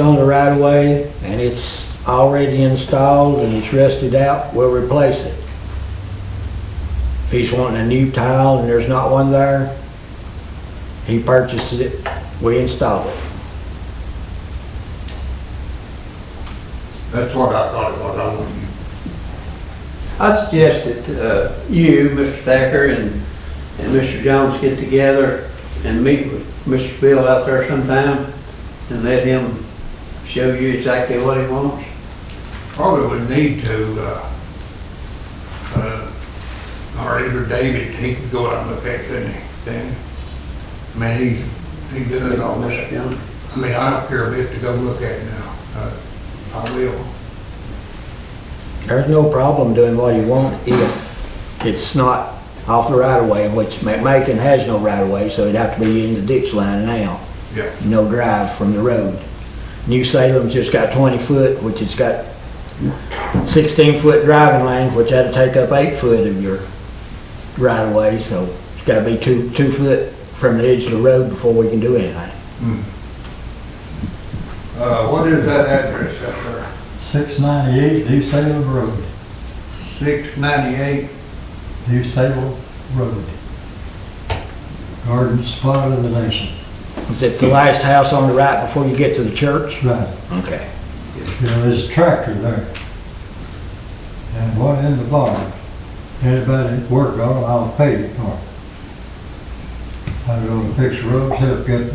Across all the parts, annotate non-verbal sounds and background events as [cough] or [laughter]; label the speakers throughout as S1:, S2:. S1: on the right of way and it's already installed and it's rusted out, we'll replace it. If he's wanting a new tile and there's not one there, he purchases it, we install it.
S2: That's what I thought it was, I don't know.
S3: I suggest that uh, you, Mr. Thacker, and, and Mr. Jones get together and meet with Mr. Bill out there sometime and let him show you exactly what he wants.
S2: probably would need to, uh, uh, or either David, he could go out and look at it, couldn't he, then? I mean, he, he does all
S3: Mr.
S2: this.
S3: Jones.
S2: I mean, I don't care a bit to go look at it now, uh, I will.
S1: There's no problem doing what he wants if it's not off the right of way, which Ma- Macon has no right of way, so it'd have to be in the ditch line now.
S2: Yeah.
S1: No drive from the road. New Salem's just got twenty foot, which it's got sixteen foot driving lane, which that'd take up eight foot of your right of way, so it's gotta be two, two foot from the edge of the road before we can do anything.
S2: Hmm. Uh, what is that address up there?
S4: 698 New Salem Road,
S2: Six ninety-eight,
S4: New Salem Road. Garden spot of the nation.
S1: Is it the last house on the right before you get to the church?
S4: Right,
S1: Okay.
S4: you know, there's a tractor there. And one in the barn. Anybody that worked on it, I'll pay it for. I'm gonna fix roads, help get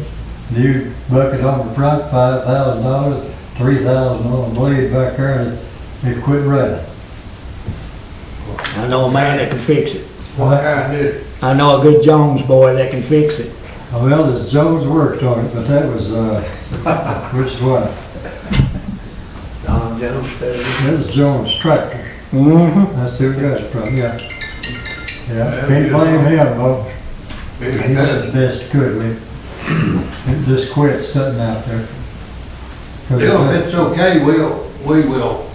S4: new bucket on the front, five thousand dollars, three thousand on the blade back there, and it quit running.
S1: I know a man that can fix it.
S2: what kind is,
S1: I know a good Jones boy that can fix it.
S4: Well, it's Joe's worked on it, but that was, uh, [laughs] which one?
S3: Don Jones, uh,
S4: There's Jones Tractor,
S1: Mm-hmm.
S4: that's who got it from, yeah. Yeah,
S2: Yeah,
S4: can't
S2: yeah.
S4: blame him, though,
S2: it
S4: he did the
S2: does,
S4: best he could with it. It just quit sitting out there.
S2: Bill, if it's okay, we'll, we will,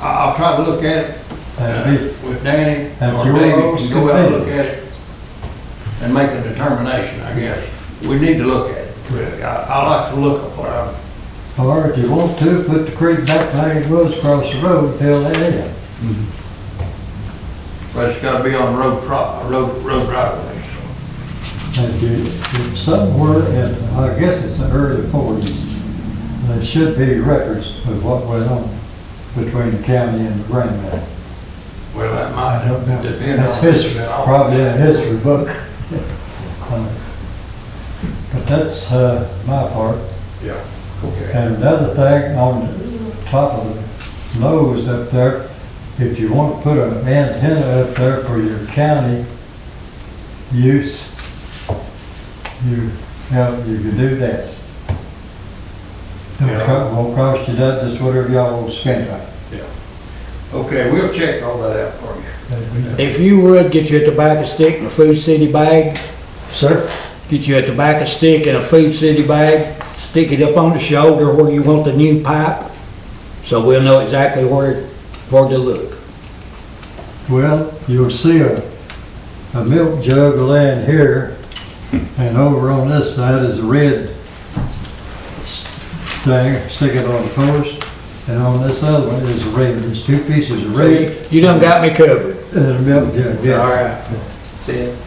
S2: I- I'll try to look at it
S4: That'd be-
S2: Uh, with Danny
S4: That's
S2: or
S4: your
S2: David
S4: all's
S2: can go out and look at
S4: convenience.
S2: it and make a determination, I guess. We need to look at it, really. I, I like to look at what I'm,
S4: Or if you want to, put the creek back like it was across the road, and fill that in.
S2: but it's gotta be on road pro, road, road right away.
S4: If you, if somewhere, in I guess it's the early forties, there should be records of what went on between the county and the Grand Bank.
S2: Well, that
S4: I don't know.
S2: might depend on.
S4: That's history,
S2: that all-
S4: probably a history book. Uh, But that's uh, my part.
S2: Yeah, okay.
S4: And another thing, on the top of the nose up there, if you want to put an antenna up there for your county use, you, yeah, you can do that. Don't
S2: Yeah.
S4: co- Won't cost you that, just whatever y'all will spend on. it.
S2: Okay, we'll check all that out for you.
S1: If you would, get you a tobacco stick and a Food City bag,
S4: Sir?
S1: get you a tobacco stick and a Food City bag, stick it up on the shoulder where you want the new pipe, so we'll know exactly where, where to look.
S4: Well, you'll see a, a milk jug laying here, and over on this side is a red s- thing sticking on the post, and on this other one is red, there's two pieces of red
S1: You done got me covered.
S4: and a milk jug,
S1: All
S4: yeah.
S1: right.
S3: see it?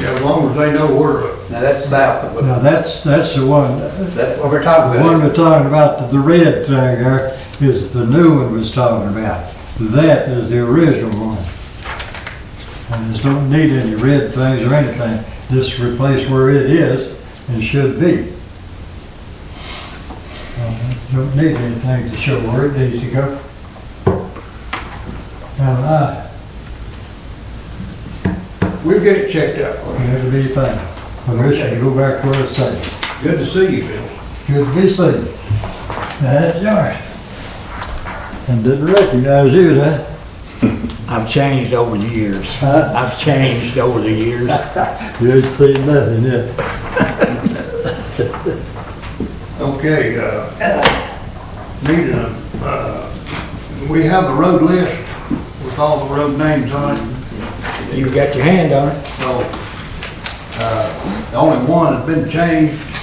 S2: Yeah, as long as they know where to look.
S3: Now, that's south of it.
S4: Now, that's, that's the one, the
S3: That's what we're talking
S4: one
S3: about.
S4: we're talking about, the- the red thing there, is the new one was talking about. That is the original one. And there's don't need any red things or anything, just replace where it is and should be. Uh, Don't need anything to show where it needs to go. Now, I,
S2: We'll get it checked out for you.
S4: it'll be fine. Permission to go back where it's safe.
S2: Good to see you, Bill.
S4: Good to be seen. That's yours. And didn't recognize you, huh?
S1: I've changed over the years.
S4: Huh?
S1: I've changed over the years.
S4: You ain't seen nothing yet.
S2: Okay, uh, need a, uh, we have the road list with all the road names on it.
S1: You got your hand on it.
S2: So, uh, the only one that's been changed